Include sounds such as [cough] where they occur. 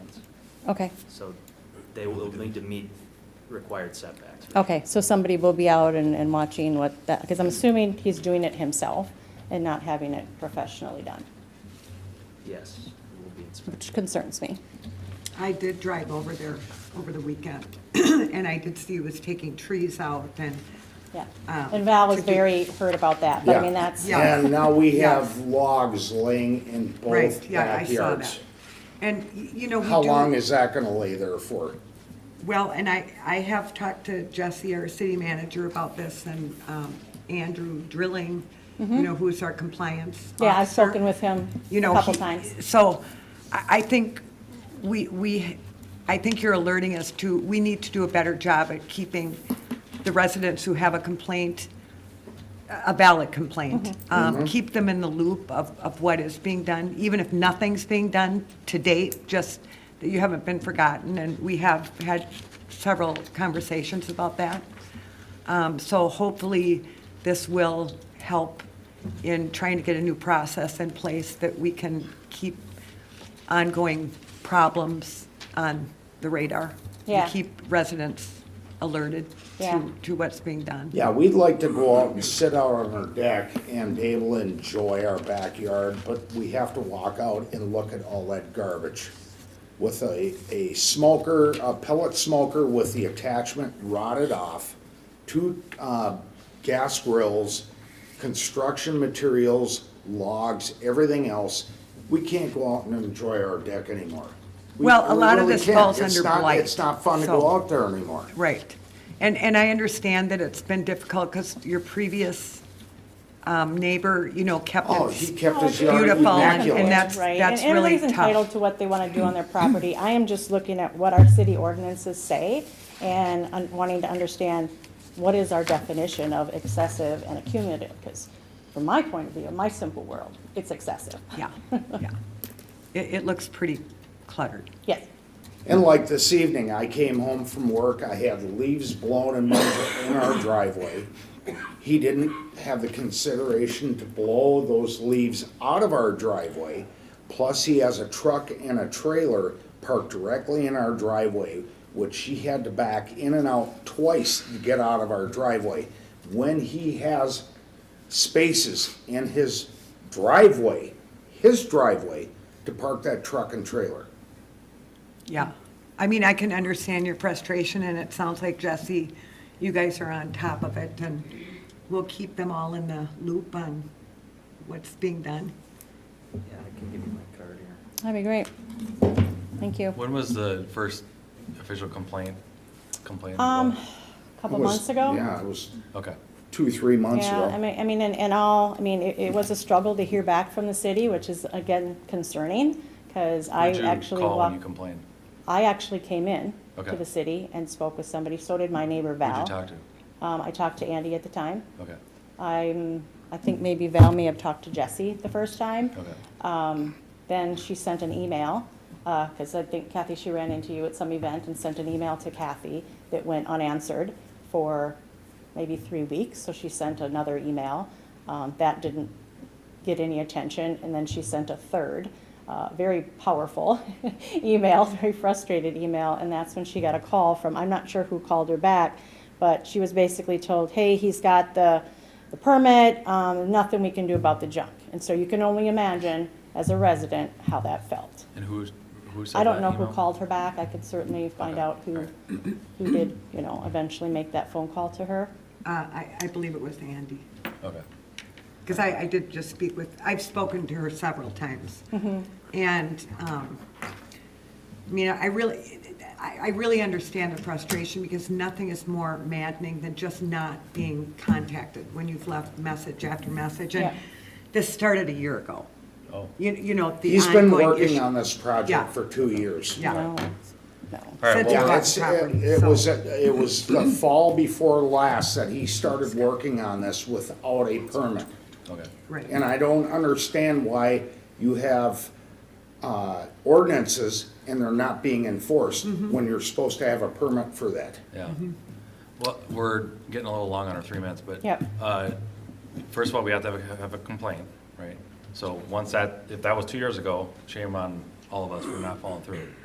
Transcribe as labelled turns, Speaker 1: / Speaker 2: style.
Speaker 1: Okay,
Speaker 2: So they will need to meet required setbacks.
Speaker 1: okay, so somebody will be out and, and watching what that, because I'm assuming he's doing it himself and not having it professionally done,
Speaker 2: Yes, it will be inspected.
Speaker 1: which concerns me.
Speaker 3: I did drive over there over the weekend, [clears throat] and I did see he was taking trees out, and
Speaker 1: Yeah,
Speaker 3: Um,
Speaker 1: and Val was
Speaker 3: to do-
Speaker 1: very hurt about that, but I
Speaker 4: Yeah.
Speaker 1: mean, that's,
Speaker 3: Yeah.
Speaker 4: And now we
Speaker 3: Yes.
Speaker 4: have logs laying in
Speaker 3: Right,
Speaker 4: both
Speaker 3: yeah, I saw that.
Speaker 4: backyards.
Speaker 3: And, y- you know, we
Speaker 4: How
Speaker 3: do-
Speaker 4: long is that gonna lay there for?
Speaker 3: Well, and I, I have talked to Jesse, our city manager, about this, and um, Andrew Drilling, you know, who's our compliance
Speaker 1: Mm-hmm. yeah, I've
Speaker 3: officer.
Speaker 1: spoken with him
Speaker 3: You
Speaker 1: a
Speaker 3: know,
Speaker 1: couple
Speaker 3: he-
Speaker 1: times.
Speaker 3: So I, I think we, we, I think you're alerting us to, we need to do a better job at keeping the residents who have a complaint, a valid complaint.
Speaker 1: Mm-hmm.
Speaker 3: Um, Keep them in the loop of, of what is being done, even if nothing's being done to date, just that you haven't been forgotten. And we have had several conversations about that. Um, So hopefully, this will help in trying to get a new process in place that we can keep ongoing problems on the radar. We
Speaker 1: Yeah.
Speaker 3: Keep residents alerted
Speaker 1: Yeah.
Speaker 3: to, to what's being done.
Speaker 4: Yeah, we'd like to go out and sit out on our deck and be able to enjoy our backyard, but we have to walk out and look at all that garbage. With a, a smoker, a pellet smoker with the attachment rotted off, two, uh, gas grills, construction materials, logs, everything else. We can't go out and enjoy our deck anymore. We-
Speaker 3: Well, a
Speaker 4: we
Speaker 3: lot of
Speaker 4: really
Speaker 3: this
Speaker 4: can't.
Speaker 3: falls
Speaker 4: It's
Speaker 3: under
Speaker 4: not-
Speaker 3: blight,
Speaker 4: It's not fun to
Speaker 3: so-
Speaker 4: go out there anymore.
Speaker 3: Right. And, and I understand that it's been difficult because your previous um, neighbor, you know, kept
Speaker 4: Oh, he
Speaker 3: it.
Speaker 4: kept his yard
Speaker 3: Beautiful, and-
Speaker 4: immaculate.
Speaker 3: and that's,
Speaker 1: Right, and
Speaker 3: that's really
Speaker 1: everybody's entitled
Speaker 3: tough.
Speaker 1: to what they want to do on their property. I am just looking at what our city ordinances say and un- wanting to understand what is our definition of excessive and accumulative? Because from my point of view, in my simple world, it's excessive.
Speaker 3: Yeah, [laughs] yeah. It, it looks pretty cluttered.
Speaker 1: Yes,
Speaker 4: And like this evening, I came home from work, I had leaves blown in my, in our driveway. He didn't have the consideration to blow those leaves out of our driveway. Plus, he has a truck and a trailer parked directly in our driveway, which he had to back in and out twice to get out of our driveway. When he has spaces in his driveway, his driveway, to park that truck and trailer.
Speaker 3: Yeah. I mean, I can understand your frustration, and it sounds like Jesse, you guys are on top of it, and we'll keep them all in the loop on what's being done.
Speaker 2: Yeah, I can give you my card here.
Speaker 1: that'd be great. Thank you.
Speaker 5: When was the first official complaint, complaint?
Speaker 1: Um,
Speaker 5: about
Speaker 1: a couple
Speaker 4: It was-
Speaker 1: months ago.
Speaker 4: Yeah, it was
Speaker 5: it? Okay,
Speaker 4: two, three months
Speaker 1: Yeah, I
Speaker 4: ago.
Speaker 1: mean, I mean, and, and all, I mean, it, it was a struggle to hear back from the city, which is again concerning, because I
Speaker 5: who'd you
Speaker 1: actually
Speaker 5: call when you
Speaker 1: walked,
Speaker 5: complained?
Speaker 1: I actually came in to
Speaker 5: Okay.
Speaker 1: the city and spoke with somebody, so did my neighbor
Speaker 5: Who'd
Speaker 1: Val.
Speaker 5: you talk to?
Speaker 1: Um, I talked to Andy at the time.
Speaker 5: Okay,
Speaker 1: I'm, I think maybe Val may have talked to Jesse the first time.
Speaker 5: okay.
Speaker 1: Um, Then she sent an email, because I think Kathy, she ran into you at some event and sent an email to Kathy that went unanswered for maybe three weeks, so she sent another email. Um, That didn't get any attention, and then she sent a third, uh, very powerful [laughs] email, very frustrated email, and that's when she got a call from, I'm not sure who called her back, but she was basically told, hey, he's got the, the permit, um, nothing we can do about the junk. And so you can only imagine, as a resident, how that felt.
Speaker 5: And who, who sent
Speaker 1: I don't
Speaker 5: that
Speaker 1: know who
Speaker 5: email?
Speaker 1: called her back, I could certainly find
Speaker 5: Okay,
Speaker 1: out who,
Speaker 5: alright.
Speaker 1: who did, you know, eventually make that phone call to her.
Speaker 3: Uh, I, I believe it was Andy,
Speaker 5: Okay,
Speaker 3: because I, I did just speak with, I've spoken to her several times. And, um, I mean, I really, I, I really understand the frustration, because nothing is more maddening than just not being contacted when you've left message after message. And
Speaker 1: Yeah.
Speaker 3: this started a year ago.
Speaker 5: oh.
Speaker 3: You, you know, the
Speaker 4: He's been
Speaker 3: ongoing
Speaker 4: working
Speaker 3: issue-
Speaker 4: on this
Speaker 3: Yeah.
Speaker 4: project for two years.
Speaker 3: Yeah.
Speaker 1: No, no.
Speaker 5: All right,
Speaker 3: Since
Speaker 5: well,
Speaker 4: Yeah,
Speaker 3: Bought
Speaker 4: it's,
Speaker 3: the
Speaker 4: it
Speaker 3: property,
Speaker 4: it
Speaker 3: so-
Speaker 4: was, it was the fall before last that he started working on this without a permit.
Speaker 5: okay.
Speaker 3: Right.
Speaker 4: And I don't understand why you have, uh, ordinances and they're not being enforced
Speaker 3: Mm-hmm.
Speaker 4: when you're supposed to have a permit for that.
Speaker 5: Yeah. Well, we're getting a little long on our three minutes, but.
Speaker 1: Yep.
Speaker 5: uh, First of all, we have to have a- have a complaint, right? So once that, if that was two years ago, shame on all of us for not following through.